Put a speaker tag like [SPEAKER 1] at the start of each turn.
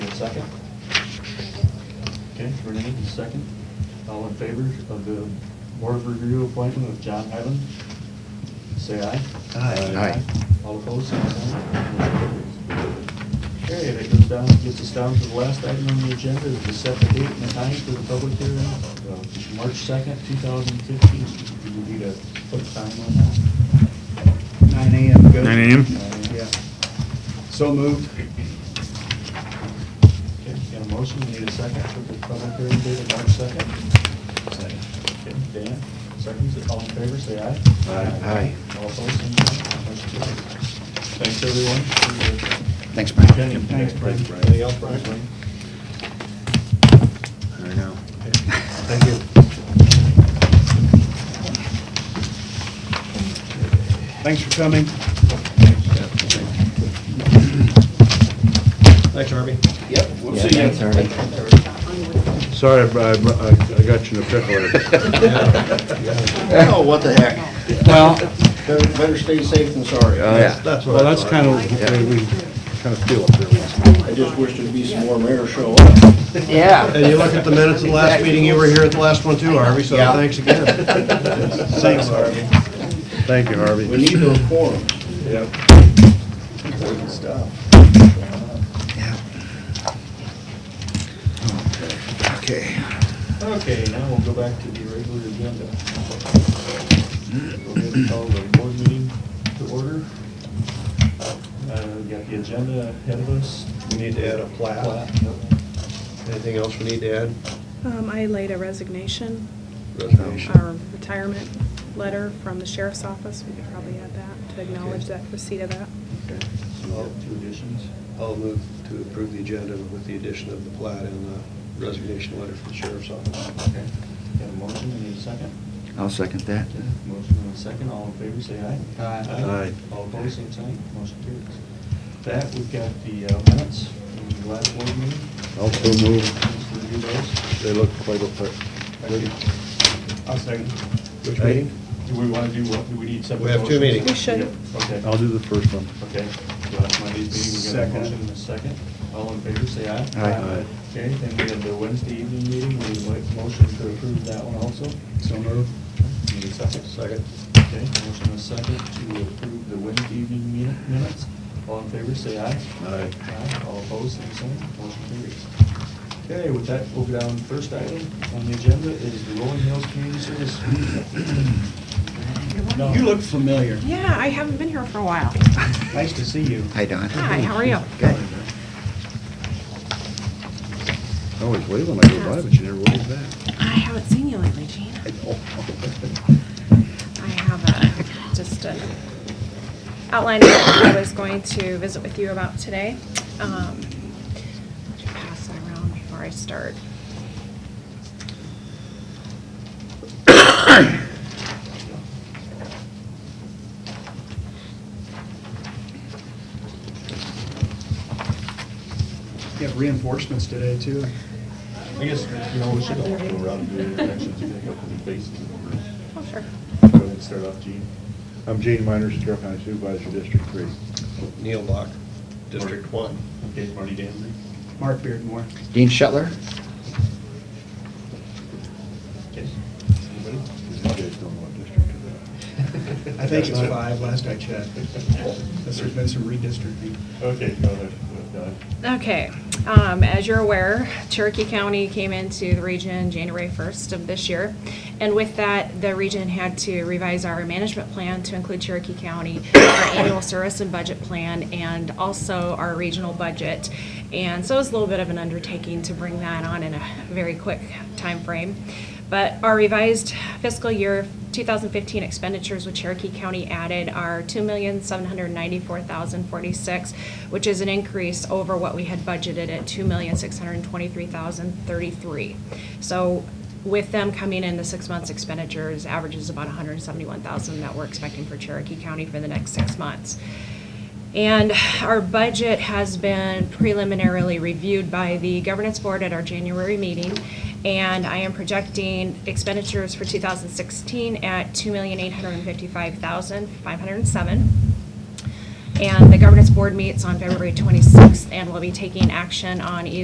[SPEAKER 1] second? Okay, Renee, the second. All in favor of the board review appointment of John Hyland? Say aye.
[SPEAKER 2] Aye. Aye.
[SPEAKER 1] All opposed, same sign. Motion carries. Okay, that goes down, gets us down to the last item on the agenda, is to set the date and the time for the public hearing, uh, March second, two thousand fifteen. Do we need to put a time on that?
[SPEAKER 3] Nine AM, good?
[SPEAKER 2] 9 a.m.?
[SPEAKER 3] Yeah. So moved.
[SPEAKER 1] Okay, got a motion, we need a second for the public hearing date of March second. Okay, Dan, seconds, all in favor, say aye.
[SPEAKER 2] Aye.
[SPEAKER 1] All opposed, same sign. Motion carries. Thanks, everyone. for
[SPEAKER 2] Thanks, Brian.
[SPEAKER 1] your opinion.
[SPEAKER 3] Thanks, Brian.
[SPEAKER 1] Anything else, Brian?
[SPEAKER 2] I know.
[SPEAKER 1] Thank you.
[SPEAKER 3] Thanks for coming.
[SPEAKER 4] Thanks, Harvey.
[SPEAKER 2] We'll see you.
[SPEAKER 5] Sorry, I br- I br- I I got you in a pickle.
[SPEAKER 2] Oh, what the heck.
[SPEAKER 5] Well,
[SPEAKER 2] Better better stay safe than sorry.
[SPEAKER 5] that's well, that's kind of the way we kind of feel up there.
[SPEAKER 2] I just wish there'd be some more mayor show up.
[SPEAKER 4] And you look at the minutes of the last meeting, you were here at the last one too, Harvey, so
[SPEAKER 2] Yeah.
[SPEAKER 4] thanks again.
[SPEAKER 2] Thanks, Harvey.
[SPEAKER 5] Thank you, Harvey.
[SPEAKER 2] We need those forums.
[SPEAKER 5] Yep.
[SPEAKER 2] Important stuff.
[SPEAKER 3] Okay.
[SPEAKER 1] Okay, now we'll go back to the regular agenda. We're going to call the board meeting to order. Uh, we got the agenda ahead of us.
[SPEAKER 4] We need to add a plat.
[SPEAKER 1] Plat, no.
[SPEAKER 4] Anything else we need to add?
[SPEAKER 6] Um, I laid a resignation,
[SPEAKER 4] Resignation.
[SPEAKER 6] or retirement letter from the sheriff's office, we could probably add that, to acknowledge that receipt of that.
[SPEAKER 1] So we have two additions.
[SPEAKER 4] I'll move to approve the agenda with the addition of the plat and the resignation letter from the sheriff's office.
[SPEAKER 1] Okay. Got a motion, we need a second.
[SPEAKER 2] I'll second that.
[SPEAKER 1] Motion and a second, all in favor, say aye.
[SPEAKER 5] Aye.
[SPEAKER 1] All opposed, same sign, motion carries. That, we've got the uh, minutes from the last board meeting.
[SPEAKER 5] Also move,
[SPEAKER 1] Let's review those.
[SPEAKER 5] they look quite effective.
[SPEAKER 1] I'll second.
[SPEAKER 4] Which meeting?
[SPEAKER 1] Do we want to do what, do we need separate
[SPEAKER 4] We have two
[SPEAKER 1] motions?
[SPEAKER 4] meetings.
[SPEAKER 6] We should.
[SPEAKER 1] Okay.
[SPEAKER 5] I'll do the first one.
[SPEAKER 1] Okay, last Monday's meeting, we got a motion and a second. All in favor, say aye.
[SPEAKER 2] Aye.
[SPEAKER 5] Aye.
[SPEAKER 1] Okay, then we have the Wednesday evening meeting, we need a motion to approve that one also.
[SPEAKER 3] So moved.
[SPEAKER 1] Need a second?
[SPEAKER 4] Second.
[SPEAKER 1] Okay, motion and a second to approve the Wednesday evening mi- minutes. All in favor, say aye.
[SPEAKER 5] Aye.
[SPEAKER 1] Aye, all opposed, same sign, motion carries. Okay, with that, we'll go down, first item on the agenda is the Rolling Hills Community Service. No.
[SPEAKER 3] You look familiar.
[SPEAKER 6] Yeah, I haven't been here for a while.
[SPEAKER 3] Nice to see you.
[SPEAKER 2] Hi, Don.
[SPEAKER 6] Hi, how are you?
[SPEAKER 2] Good.
[SPEAKER 5] I always wave when I go by, but you never wave back.
[SPEAKER 6] I haven't seen you lately, Gene. I have a, just a outline of what I was going to visit with you about today. Um, I'll just Pass it around before I start.
[SPEAKER 3] You have reinforcements today, too.
[SPEAKER 1] I guess, you know, we should all go around and do introductions, you can go through the faces.
[SPEAKER 6] Oh, sure.
[SPEAKER 1] Go ahead and start off, Gene.
[SPEAKER 5] I'm Gene Miners, Carroll County Supervisor, District Three.
[SPEAKER 4] Neil Bach, District One.
[SPEAKER 1] Okay, Marty Danzy.
[SPEAKER 3] Mark Beardmore.
[SPEAKER 2] Dean Shetler?
[SPEAKER 1] Okay.
[SPEAKER 5] You guys don't know what district it
[SPEAKER 3] I think it's five, last I checked. Unless there's been some redistricting.
[SPEAKER 1] Okay, go ahead. Go ahead.
[SPEAKER 6] Okay, um, as you're aware, Cherokee County came into the region January first of this year. And with that, the region had to revise our management plan to include Cherokee County, our annual service and budget plan, and also our regional budget. And so it was a little bit of an undertaking to bring that on in a very quick time frame. But our revised fiscal year 2015 expenditures with Cherokee County added are $2,794,046, which is an increase over what we had budgeted at $2,623,033. So with them coming in, the six months expenditures averages about 171,000 that we're expecting for Cherokee County for the next six months. And our budget has been preliminarily reviewed by the governance board at our January meeting. And I am projecting expenditures for 2016 at $2,855,507. And the governance board meets on February 26th and will be taking action on either.